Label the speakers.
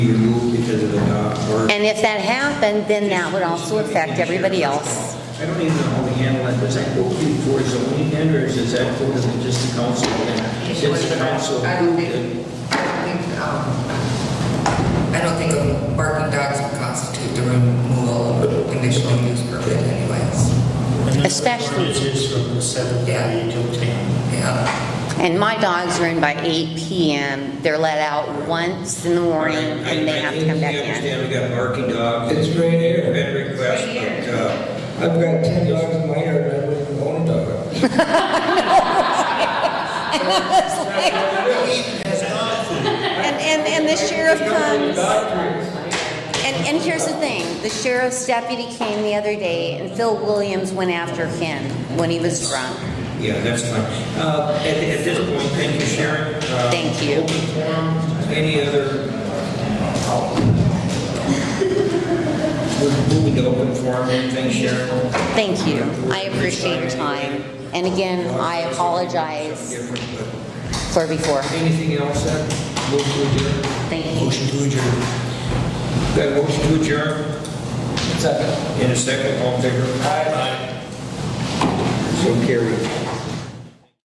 Speaker 1: be removed because of the dog or.
Speaker 2: And if that happened, then that would also affect everybody else.
Speaker 1: I don't even know how we handle that. Does that go before zoning then, or is that go to just the council? then? Since the council
Speaker 3: I don't
Speaker 1: approved it.
Speaker 3: think, I don't think, um, I don't think a barking dogs would constitute the removal of conditional use permit anyways.
Speaker 2: Especially-
Speaker 4: It is from the seven
Speaker 3: Yeah.
Speaker 4: thirty till ten.
Speaker 3: Yeah,
Speaker 2: And my dogs are in by 8 PM. They're let out once in the morning and they have to come back
Speaker 1: I
Speaker 2: in.
Speaker 1: understand we got barking dogs.
Speaker 5: It's right here.
Speaker 1: Been request, but, uh,
Speaker 5: I've got ten dogs in my yard, and I wouldn't even own a dog.
Speaker 2: And, and, and the sheriff comes. And, and here's the thing, the sheriff's deputy came the other day and Phil Williams went after him when he was drunk.
Speaker 1: yeah, that's fine. Uh, at, at this point, thank you, Sharon. Uh,
Speaker 2: Thank you.
Speaker 1: open forum. Any other? uh, We're moving to open forum, anything, Sharon?
Speaker 2: Thank you. I appreciate your time. And again, I apologize
Speaker 1: Different, but
Speaker 2: for before.
Speaker 1: Anything else, then? Move to adjourn?
Speaker 2: Thank you.
Speaker 1: Motion to adjourn. Got a motion to adjourn?
Speaker 5: Second.
Speaker 1: In a second, all in favor? Aye. So carried.